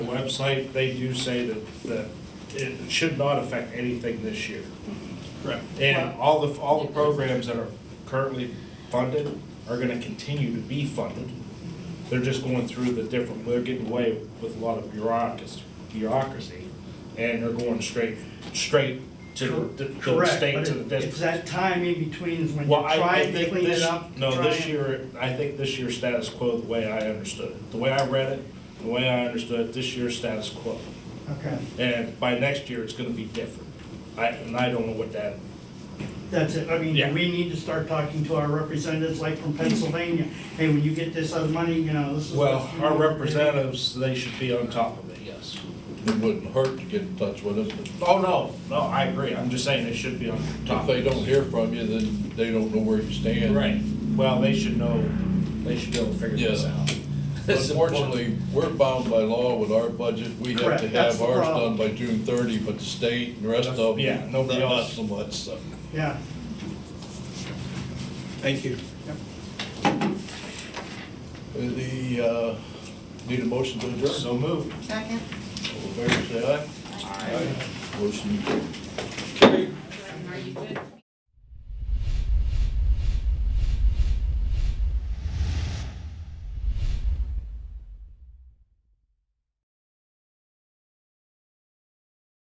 website, they do say that, that it should not affect anything this year. Correct. And all the, all the programs that are currently funded are gonna continue to be funded. They're just going through the different, they're getting away with a lot of bureaucracy, bureaucracy, and they're going straight, straight to the- the Correct, state, but to the it- district. It's that time in between when you Well, I, try I to think clean it this, up. no, try this and- year, I think this year's status quo, the way I understood it, the way I read it, the way I understood it, this year's status quo. Okay, And by next year, it's gonna be different. I, and I don't know what that, that's it. I mean, Yeah. we need to start talking to our representatives like from Pennsylvania. Hey, when you get this other money, you know, this is. well, what you our need to do. representatives, they should be on top of it, yes. It wouldn't hurt to get in touch with us, but Oh, no, no, I agree, I'm just saying they should be on top of if it. they don't hear from you, then they don't know where you stand. Right, well, they should know, they should be able to figure this Yeah. out. It's important. Unfortunately, we're bound by law with our budget, we have Correct, to that's have the ours problem. done by June thirty, but the state and the rest of them. Yeah, nobody not- else. Not so much, so. Yeah. Thank you. The, uh, need a motion to adjourn? So moved. Second. All in favor, say aye. Aye. Motion Are you good?